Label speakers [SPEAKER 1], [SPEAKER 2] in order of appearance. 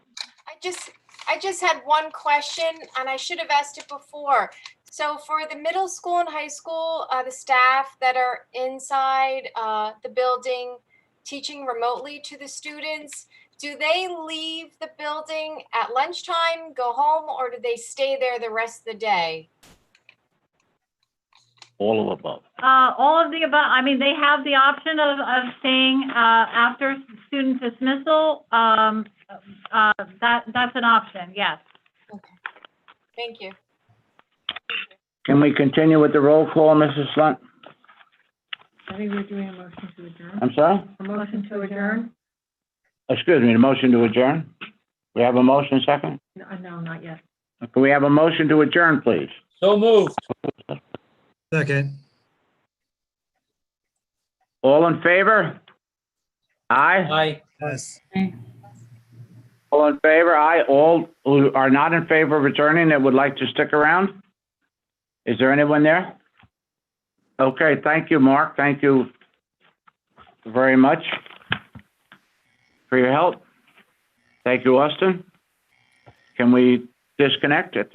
[SPEAKER 1] just, I just had one question and I should have asked it before. So for the middle school and high school, uh, the staff that are inside, uh, the building, teaching remotely to the students, do they leave the building at lunchtime, go home, or do they stay there the rest of the day?
[SPEAKER 2] all of above.
[SPEAKER 3] Uh, all of the above, I mean, they have the option of, of staying, uh, after student dismissal, um, uh, that, that's an option, yes.
[SPEAKER 1] Thank you.
[SPEAKER 4] Can we continue with the roll call, Mrs. Lunt?
[SPEAKER 5] I think we're doing a motion to adjourn.
[SPEAKER 4] I'm sorry?
[SPEAKER 5] A motion to adjourn?
[SPEAKER 4] Excuse me, the motion to adjourn? We have a motion second?
[SPEAKER 5] No, uh, No, not yet.
[SPEAKER 4] Can we have a motion to adjourn, please?
[SPEAKER 6] So moved.
[SPEAKER 7] Second.
[SPEAKER 4] All in favor? Aye?
[SPEAKER 6] Aye.
[SPEAKER 7] Yes.
[SPEAKER 4] All in favor? Aye. All who are not in favor of adjourning that would like to stick around? Is there anyone there? Okay, thank you, Mark. Thank you very much for your help. Thank you, Austin. Can we disconnect at